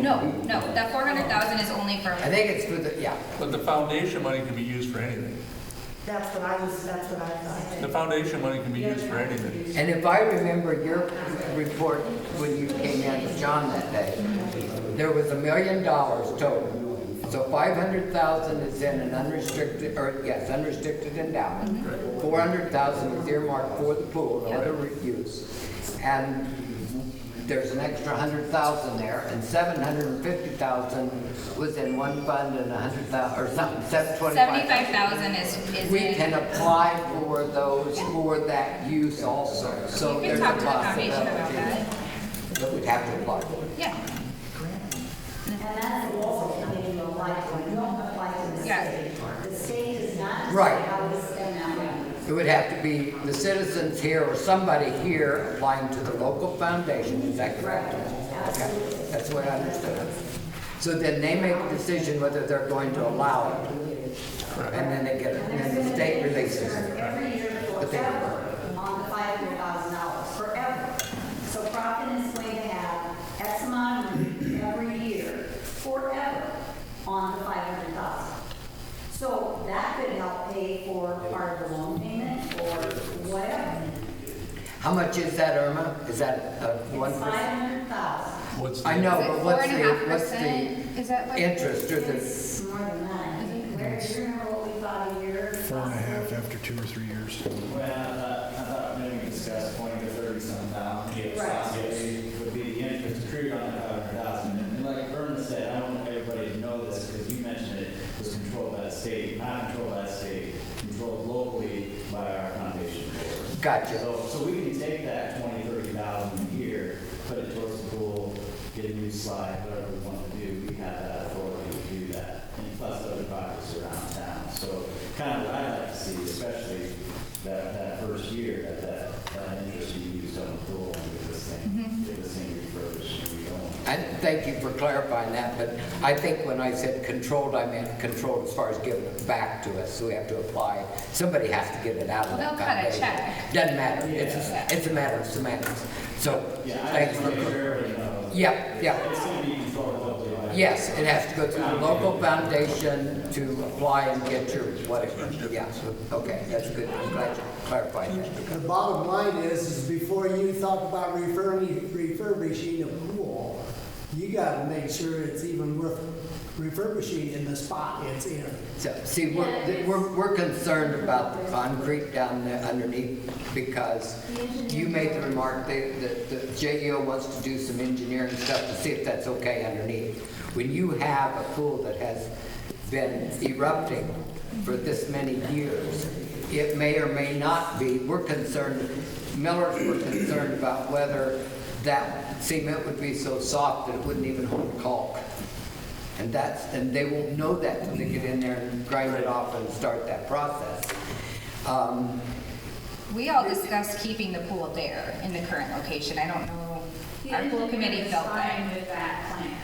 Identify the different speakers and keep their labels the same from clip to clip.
Speaker 1: No, no, that four hundred thousand is only for,
Speaker 2: I think it's with, the yeah,
Speaker 3: But the foundation money can be used for anything.
Speaker 4: That's what I was, that's what I
Speaker 3: The
Speaker 4: thought.
Speaker 3: foundation money can be used for anything.
Speaker 2: and if I remember your report when you came in with John that day, there was a million dollars total. So five hundred thousand is in an unrestricted, or yes, unrestricted endowment. Four hundred thousand is earmarked for the pool, no other use. And there's an extra hundred thousand there, and seven hundred and fifty thousand was in one fund and a hundred thousand, or something, seven twenty-five.
Speaker 1: seventy-five thousand is, is
Speaker 2: We
Speaker 1: in-
Speaker 2: can apply for those, for that use also,
Speaker 1: You
Speaker 2: so
Speaker 1: can
Speaker 2: there's a
Speaker 1: talk to the foundation about
Speaker 2: possibility.
Speaker 1: that,
Speaker 2: But we'd have to apply for it.
Speaker 1: yeah.
Speaker 5: And that's also something you apply for, you don't apply to the
Speaker 1: Yeah.
Speaker 5: state. The state does not
Speaker 2: Right.
Speaker 5: decide how to spend that money.
Speaker 2: It would have to be the citizens here or somebody here applying to the local foundation, is that correct? Okay, that's what I understood. So then they make a decision whether they're going to allow it. And then they get, it, and then the state releases it.
Speaker 5: Every year
Speaker 2: But they-
Speaker 5: forever on the five hundred thousand dollars, forever. So Crofton is going to have X amount of money every year, forever, on the five hundred thousand. So that could help pay for part of the loan payment or whatever.
Speaker 2: How much is that, Irma? Is that uh, one
Speaker 5: It's
Speaker 2: percent?
Speaker 5: five hundred thousand,
Speaker 3: What's
Speaker 2: I
Speaker 3: the,
Speaker 2: know,
Speaker 1: Is it
Speaker 2: but
Speaker 1: four
Speaker 2: what's
Speaker 1: and a
Speaker 2: the,
Speaker 1: half
Speaker 2: what's the
Speaker 1: percent? Is that like?
Speaker 2: interest or the?
Speaker 5: it's more than that. Where, do you remember what we thought a year?
Speaker 6: Four and a half after two or three years.
Speaker 7: Well, I thought maybe we discussed twenty to thirty some thousand, yeah,
Speaker 5: Right.
Speaker 7: it would be the interest accrued on the five hundred thousand. And like Vernon said, I don't want everybody to know this, because you mentioned it was controlled by the state, not controlled by the state, controlled locally by our foundation board.
Speaker 2: Gotcha.
Speaker 7: So, so we can take that twenty, thirty thousand a year, put it towards the pool, get a new slide, whatever we want to do, we have that authority to do that. And plus other projects around town, so kind of what I like to see, especially that, that first year, that, that, that interest you used on the pool, and get this thing, get this thing refurbished, and we don't.
Speaker 2: And thank you for clarifying that, but I think when I said controlled, I meant controlled as far as giving it back to us, so we have to apply. Somebody has to get it out of
Speaker 1: They'll
Speaker 2: that
Speaker 1: cut a
Speaker 2: foundation.
Speaker 1: check.
Speaker 2: Doesn't matter, it's,
Speaker 1: Yeah.
Speaker 2: a- it's a matter of semantics. So,
Speaker 7: Yeah, I
Speaker 2: thanks
Speaker 7: just want to make
Speaker 2: for,
Speaker 7: sure everybody knows.
Speaker 2: yeah, yeah.
Speaker 7: It's gonna be controlled locally by.
Speaker 2: Yes, it has to go through the local foundation to apply and get your whatever. Yeah, so, okay, that's good, I'm glad you clarified that.
Speaker 8: The bottom line is, is before you thought about refurbishing, refurbishing a pool, you gotta make sure it's even worth refurbishing in the spot it's in.
Speaker 2: So, see, we're, th- we're, we're concerned about the concrete down there underneath because you made the remark that, that the JEO wants to do some engineering stuff to see if that's okay underneath. When you have a pool that has been erupting for this many years, it may or may not be, we're concerned, Millers were concerned about whether that cement would be so soft that it wouldn't even hold caulk. And that's, and they won't know that till they get in there and grind it off and start that process. Um,
Speaker 1: We all discussed keeping the pool there in the current location, I don't know, our pool committee felt
Speaker 5: Fine
Speaker 1: that.
Speaker 5: with that plan.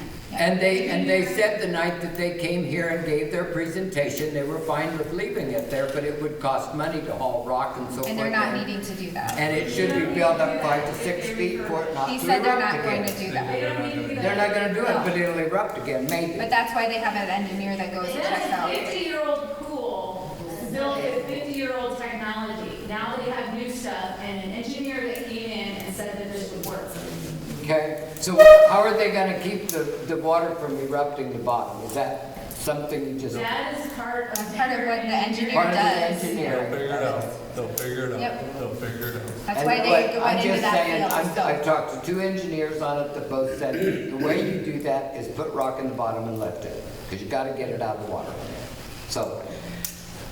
Speaker 2: And they, and they said the night that they came here and gave their presentation, they were fine with leaving it there, but it would cost money to haul rock and so forth.
Speaker 1: And they're not needing to do that.
Speaker 2: And it should be built up five to six feet for it not to
Speaker 1: He
Speaker 2: erupt
Speaker 1: said they're not going to
Speaker 2: again.
Speaker 1: do that.
Speaker 2: They're not gonna do it, but it'll erupt again, maybe.
Speaker 1: But that's why they have an engineer that goes
Speaker 9: It
Speaker 1: and checks
Speaker 9: has
Speaker 1: out.
Speaker 9: a fifty-year-old pool, built with fifty-year-old technology. Now they have new stuff, and an engineer that came in and said that this would work.
Speaker 2: Okay, so how are they gonna keep the, the water from erupting the bottom? Is that something you just?
Speaker 9: That is part of.
Speaker 1: Part of what the engineer
Speaker 2: Part of the
Speaker 1: does.
Speaker 3: they'll
Speaker 2: engineering.
Speaker 3: figure it out, they'll figure it
Speaker 1: Yep.
Speaker 3: out, they'll figure it out.
Speaker 1: That's
Speaker 2: And-
Speaker 1: why
Speaker 2: but
Speaker 1: they went
Speaker 2: I'm
Speaker 1: into
Speaker 2: just saying,
Speaker 1: that
Speaker 2: I'm-
Speaker 1: field, so.
Speaker 2: I've talked to two engineers on it that both said, the way you do that is put rock in the bottom and lift it, because you gotta get it out of the water. So,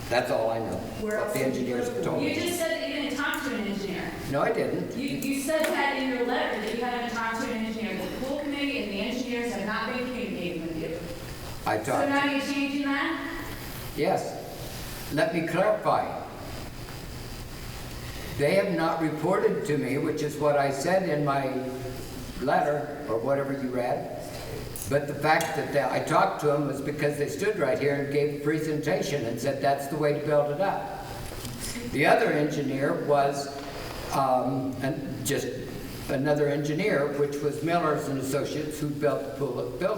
Speaker 2: that's all I know,
Speaker 4: Where
Speaker 2: what
Speaker 4: else
Speaker 2: the
Speaker 4: did you
Speaker 2: engineers
Speaker 4: put it?
Speaker 2: told
Speaker 9: You
Speaker 2: me.
Speaker 9: just said that you didn't talk to an engineer.
Speaker 2: No, I didn't.
Speaker 9: You, you said that in your letter, that you haven't talked to an engineer. The pool committee and the engineers have not been communicating with you.
Speaker 2: I
Speaker 9: So
Speaker 2: talked,
Speaker 9: now you're changing that?
Speaker 2: yes. Let me clarify. They have not reported to me, which is what I said in my letter, or whatever you read. But the fact that they- I talked to them was because they stood right here and gave a presentation and said, that's the way to build it up. The other engineer was, um, an- just another engineer, which was Millers and Associates, who built the pool at Bill